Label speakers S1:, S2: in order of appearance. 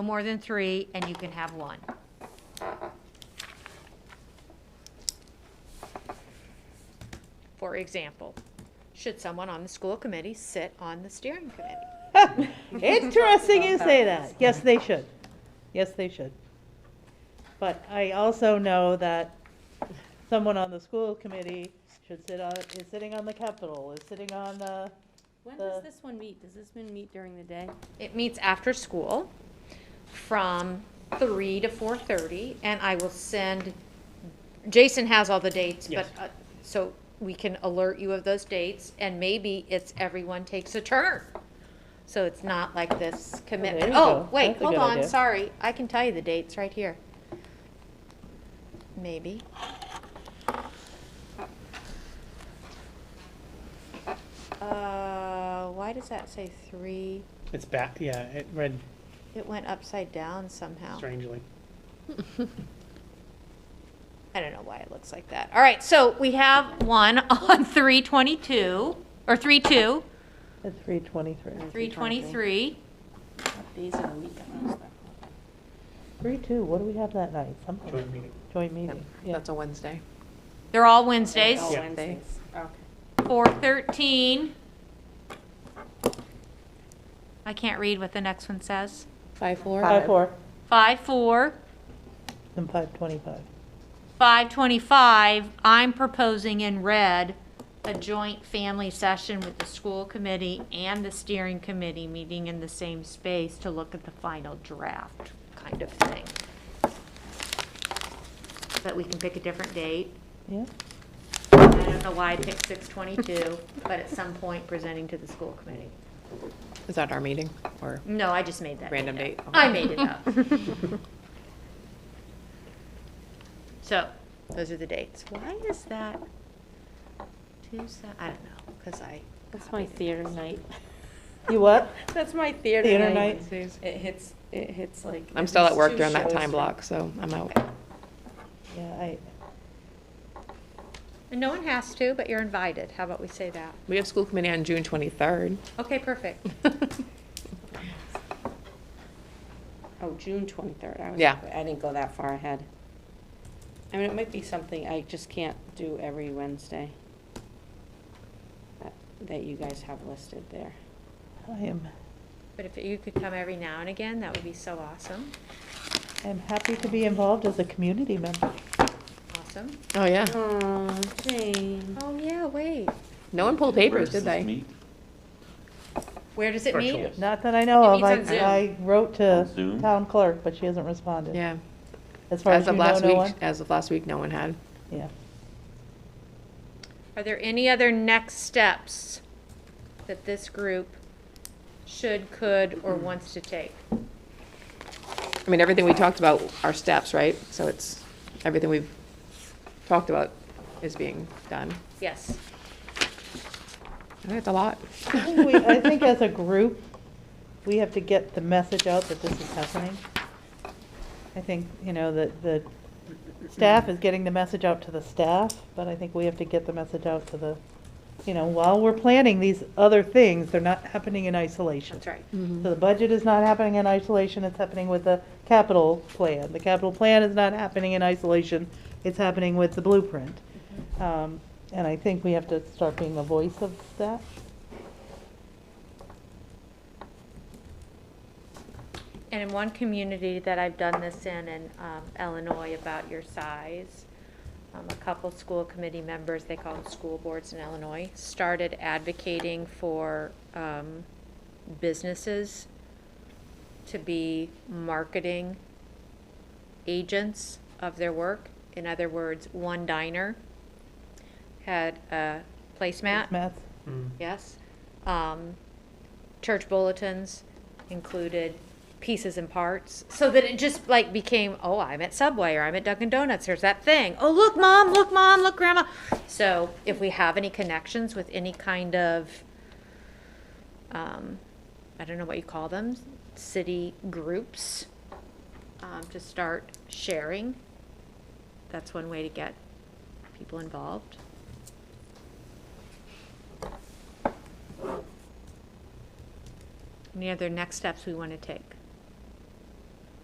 S1: no more than three, and you can have one. For example, should someone on the school committee sit on the steering committee?
S2: Interesting you say that. Yes, they should. Yes, they should. But I also know that someone on the school committee should sit on, is sitting on the Capitol, is sitting on uh, the,
S3: When
S2: the-
S3: does this one meet? Does this one meet during the day?
S1: It meets after school from three to four thirty, and I will send, Jason has all the dates, but,
S4: Yes.
S1: uh, so we can alert you of those dates, and maybe it's everyone takes a turn. So it's not like this commitment,
S2: you
S1: oh,
S2: go.
S1: wait,
S2: That's a
S1: hold
S2: good
S1: on,
S2: idea.
S1: sorry, I can tell you the dates right here. Maybe. Uh, why does that say three?
S4: It's back, yeah, it read
S1: It went upside down somehow.
S4: strangely.
S1: I don't know why it looks like that. All right, so we have one on three twenty-two, or three two,
S2: the three twenty-three.
S1: three twenty-three.
S3: What days of the week are those?
S2: Three, two, what do we have that night? Something,
S4: Joint meeting.
S2: joint meeting. Yeah.
S5: That's a Wednesday.
S1: They're all Wednesdays.
S3: Oh,
S4: Yeah.
S3: Wednesdays. Okay.
S1: Four thirteen. I can't read what the next one says.
S5: Five, four?
S2: Five, four,
S1: Five four,
S2: and five twenty-five.
S1: five twenty-five. I'm proposing in red a joint family session with the school committee and the steering committee meeting in the same space to look at the final draft kind of thing. But we can pick a different date.
S2: Yeah,
S1: I don't know why I picked six twenty-two, but at some point presenting to the school committee.
S5: Is that our meeting or
S1: No, I just made that.
S5: random
S1: date
S5: date?
S1: up. I made it up. So, those are the dates. Why is that Tuesday? I don't know, because I.
S3: That's my theater night.
S2: you what?
S3: That's my theater night.
S2: Theater night?
S3: It hits, it hits like.
S5: I'm still at
S3: it's
S5: work
S3: two
S5: during that
S3: shows
S5: time
S3: for-
S5: block, so I'm out.
S2: Yeah, I,
S1: And no one has to, but you're invited. How about we say that?
S5: We have school committee on June twenty-third.
S1: Okay, perfect.
S3: Oh, June twenty-third. I was.
S5: Yeah.
S3: I didn't go that far ahead. I mean, it might be something I just can't do every Wednesday that- that you guys have listed there.
S2: I am,
S1: But if you could come every now and again, that would be so awesome.
S2: I'm happy to be involved as a community member.
S1: Awesome.
S5: Oh, yeah.
S3: Oh, Jane.
S1: Mm-hmm. Oh, yeah, wait.
S5: No one pulled
S6: Where
S5: papers,
S6: does
S5: did
S6: this
S5: they?
S6: meet?
S1: Where does it meet?
S6: Virtual.
S2: Not that I know of. I,
S1: meets on Zoom.
S2: I wrote to
S6: On Zoom?
S2: town clerk, but she hasn't responded.
S5: Yeah.
S2: As far as
S5: As
S2: you
S5: of
S2: know,
S5: last
S2: no one?
S5: week, as of last week, no one had.
S2: Yeah.
S1: Are there any other next steps that this group should, could, or wants to take?
S5: I mean, everything we talked about are steps, right? So it's, everything we've talked about is being done.
S1: Yes.
S5: I think That's a lot.
S2: I think we- I think as a group, we have to get the message out that this is happening. I think, you know, that the staff is getting the message out to the staff, but I think we have to get the message out to the, you know, while we're planning these other things, they're not happening in isolation.
S1: That's right.
S2: So the budget is not happening in isolation, it's happening with the capital plan. The capital plan is not happening in isolation, it's happening with the blueprint.
S1: Mm-hmm.
S2: Um, And I think we have to start being a voice of that.
S1: And in one community that I've done this in, in um, Illinois, about your size, um, a couple school committee members, they call them school boards in Illinois, started advocating for um, businesses to be marketing agents of their work. In other words, one diner had a placemat.
S2: Matt?
S4: Mm.
S1: Yes. Um, church bulletins included pieces and parts, so that it just like became, oh, I'm at Subway or I'm at Dunkin' Donuts. There's that thing. Oh, look, mom. Look, mom. Look, grandma. So if we have any connections with any kind of, um, I don't know what you call them, city groups, um, to start sharing. That's one way to get people involved. Any other next steps we want to take?